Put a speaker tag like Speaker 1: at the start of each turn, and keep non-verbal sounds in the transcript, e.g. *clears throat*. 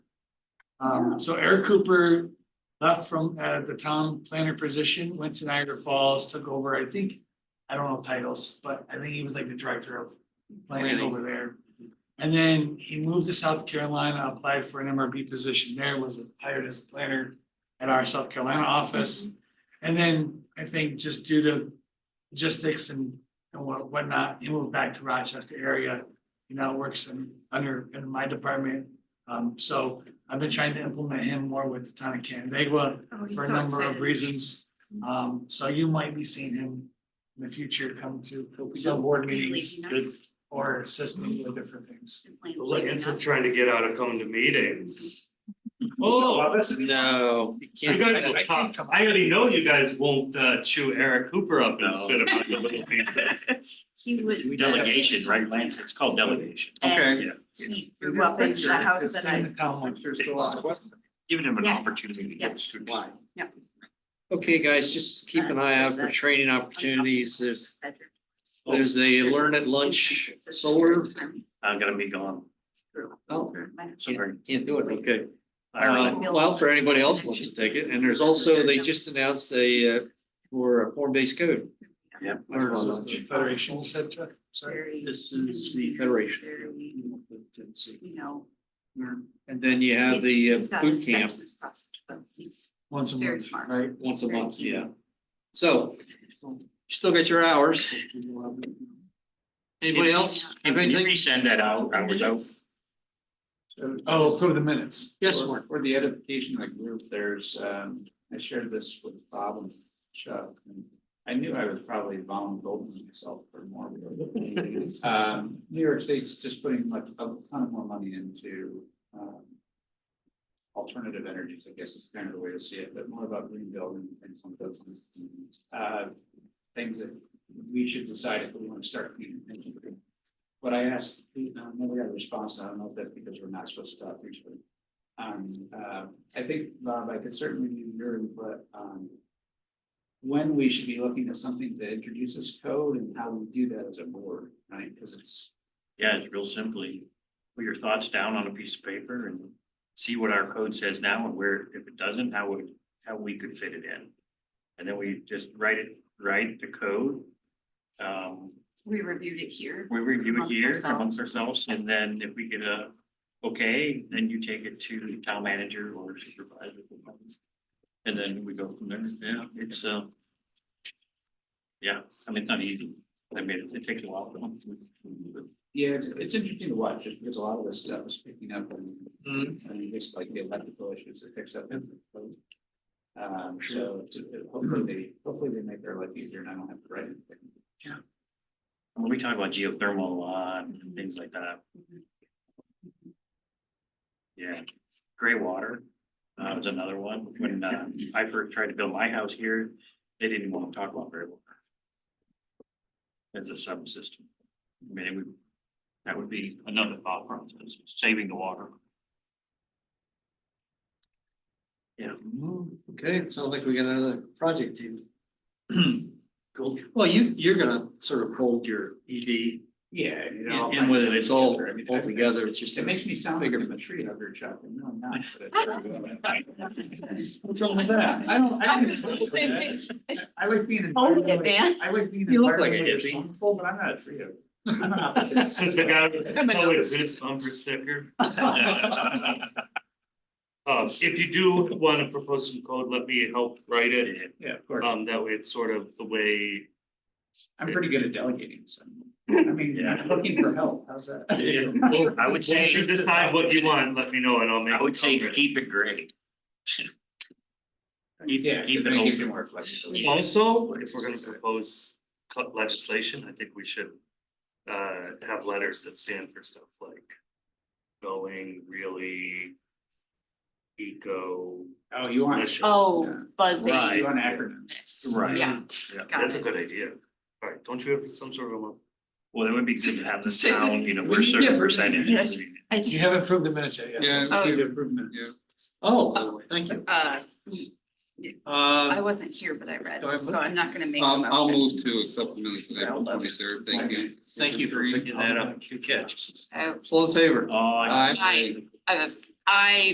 Speaker 1: Um, so Eric Cooper left from, uh, the town planner position, went to Niagara Falls, took over, I think, I don't know titles, but I think he was like the director of planning
Speaker 2: Planning.
Speaker 1: over there. And then he moved to South Carolina, applied for an MRB position there, was hired as a planner at our South Carolina office. And then I think just due to logistics and and what- whatnot, he moved back to Rochester area. He now works in, under, in my department. Um, so I've been trying to implement him more with the town of Canandaigua
Speaker 3: Oh, he's
Speaker 1: for a
Speaker 3: so
Speaker 1: number of
Speaker 3: excited. Mm-hmm.
Speaker 1: reasons. Um, so you might be seeing him in the future come to some board
Speaker 3: Hopefully
Speaker 1: meetings
Speaker 3: nice.
Speaker 4: Good,
Speaker 1: or assist me with different things.
Speaker 3: Just like
Speaker 4: like,
Speaker 3: leaving
Speaker 4: it's
Speaker 3: us.
Speaker 4: just trying to get out of coming to
Speaker 1: *laughs*
Speaker 4: meetings.
Speaker 2: Oh,
Speaker 1: that's
Speaker 2: no. you
Speaker 4: You
Speaker 2: can't-
Speaker 4: guys
Speaker 2: I-
Speaker 4: will
Speaker 2: I
Speaker 4: talk-
Speaker 2: can't-
Speaker 4: I already know you guys won't uh, chew Eric Cooper up and spit him out in little pieces.
Speaker 3: He was. the-
Speaker 5: Delegation, right, Lance? It's called delegation.
Speaker 2: Okay.
Speaker 3: And He grew up in the house that I,
Speaker 5: Giving him an
Speaker 3: Yes.
Speaker 5: opportunity to
Speaker 3: Yeah.
Speaker 5: go through.
Speaker 2: Why?
Speaker 3: Yep.
Speaker 2: Okay, guys, just keep an eye out for training opportunities. There's, there's a learn at Oh, lunch solar.
Speaker 5: I'm gonna Uh, be gone.
Speaker 2: Oh,
Speaker 5: So very-
Speaker 2: Can't do it, okay.
Speaker 5: I already-
Speaker 2: Um, Well, for anybody else who wants to take it, and there's also, they just announced a, uh, for a form-based code.
Speaker 5: Yep.
Speaker 2: Or-
Speaker 1: Federation, center. sorry.
Speaker 3: Very,
Speaker 2: This is the federation.
Speaker 3: very, you know.
Speaker 2: And then you have the
Speaker 3: he's- he's
Speaker 2: uh,
Speaker 3: got his
Speaker 2: boot camp
Speaker 3: sepsis Process, but he's
Speaker 1: Once a
Speaker 3: Very
Speaker 1: month,
Speaker 3: smart.
Speaker 1: right?
Speaker 2: once a
Speaker 3: very
Speaker 2: month,
Speaker 3: keen.
Speaker 2: yeah. So, you still got your hours. Anybody else?
Speaker 5: Can you
Speaker 2: Anything?
Speaker 5: resend that out? I was out.
Speaker 1: Oh, through the minutes.
Speaker 2: Yes,
Speaker 6: For- For the edification of the group, there's, um, I shared this with Bob and Chuck. and I knew I was probably vulnerable to myself for more. but, Um, New York State's just putting like a ton more money into, um. Alternative energies, I guess is kind of the way to see it, but more about green building and things like those. things. Uh, things that we should decide if we want to start. paying attention to. What I asked, I never got a response, I don't know if that's because we're not supposed to talk usually. Um, uh, I think, Bob, I could certainly use your input on um, when we should be looking at something that introduces code and how we do that as a board, right? Because it's,
Speaker 5: Yeah, it's real simply, put your thoughts down on a piece of paper and see what our code says now and where, if it doesn't, how would, how we could fit it in. And then we just write it, write the code. Um,
Speaker 3: we reviewed it here.
Speaker 5: we review it
Speaker 3: Amongst
Speaker 5: here
Speaker 3: ourselves.
Speaker 5: amongst ourselves, and then if we get a, okay, then you take it to the town manager or supervisor. And then we go from there, yeah, it's, uh. Yeah, I mean, it's not easy, I mean, it takes a while.
Speaker 6: yeah, it's, it's interesting to watch, just because a lot of this stuff is picking up and,
Speaker 5: Mhm.
Speaker 6: I mean, just like the electrical issues that picks up. in the
Speaker 5: Hmm.
Speaker 6: code. Um, so to- hopefully they, hopefully they make their life easier and I don't have to write anything.
Speaker 5: When we talk about geothermal a lot and things like that. Yeah, gray water, uh, was another one, when, uh, I first tried to build my house here, they didn't want to talk about gray water. As a subsystem, I mean, it would, that would be another thought process, saving the water. Yeah.
Speaker 2: Okay, sounds like we got another project team. *clears throat* Cool. Well, you, you're gonna sort of hold your E ED
Speaker 6: Yeah. you know,
Speaker 2: and whether it's all,
Speaker 6: I mean,
Speaker 2: all
Speaker 6: that's-
Speaker 2: together, it's just.
Speaker 6: It makes me sound like I'm a tree hugger, Chuck, and no, I'm not.
Speaker 5: *laughs*
Speaker 6: but- What's wrong with that? I don't, I don't. I like being. an
Speaker 3: Hold it,
Speaker 6: environmentally-
Speaker 3: man.
Speaker 6: I like being.
Speaker 2: You look like a
Speaker 6: environmentally
Speaker 2: hippie.
Speaker 6: responsible, But I'm not a tree hugger. I'm an opportunist.
Speaker 4: Since the guy with the public Oh, this bumper sticker. Uh, if you do wanna propose some code, let me help write it,
Speaker 6: Yeah, of course.
Speaker 4: um, that way it's sort of the way.
Speaker 6: I'm pretty good at delegating, so. I mean,
Speaker 4: Yeah.
Speaker 6: I'm looking for help, how's that?
Speaker 5: I would say-
Speaker 4: Once you decide what you want, let me know and I'll make.
Speaker 5: I would say
Speaker 4: it.
Speaker 5: keep it gray.
Speaker 6: Yeah,
Speaker 5: keep
Speaker 6: because
Speaker 5: it
Speaker 6: then it gives
Speaker 5: open.
Speaker 6: you more flexibility.
Speaker 4: Also, if we're gonna propose cut legislation, I think we should uh have letters that stand for stuff like going really eco.
Speaker 6: Oh, you want.
Speaker 4: Delicious.
Speaker 3: Oh, buzzing.
Speaker 5: Right.
Speaker 6: You want acronyms.
Speaker 5: Right.
Speaker 3: Yeah,
Speaker 4: Yeah,
Speaker 3: Got
Speaker 4: that's a
Speaker 3: it.
Speaker 4: good idea. Alright, don't you have some sort of a
Speaker 5: Well, it would be good to have the
Speaker 6: Say
Speaker 5: sound,
Speaker 4: *laughs*
Speaker 6: that.
Speaker 5: you know, we're certain
Speaker 6: Yeah.
Speaker 5: percentages.
Speaker 3: I
Speaker 1: You haven't approved the minutes yet, yeah.
Speaker 3: Oh.
Speaker 6: Need improvements.
Speaker 2: Oh, thank you.
Speaker 3: uh,
Speaker 7: Um,
Speaker 3: I
Speaker 2: Uh,
Speaker 3: wasn't here, but I read,
Speaker 2: Go ahead.
Speaker 3: so I'm not gonna make. a
Speaker 7: I'll, Um, I'll
Speaker 3: motion.
Speaker 7: move to accept the minutes of April
Speaker 3: Well,
Speaker 7: twenty-third, thank you.
Speaker 2: thank you for picking that up. Good catch.
Speaker 3: Oh,
Speaker 2: All in favor?
Speaker 5: Oh,
Speaker 2: Aye.
Speaker 3: I, I was, I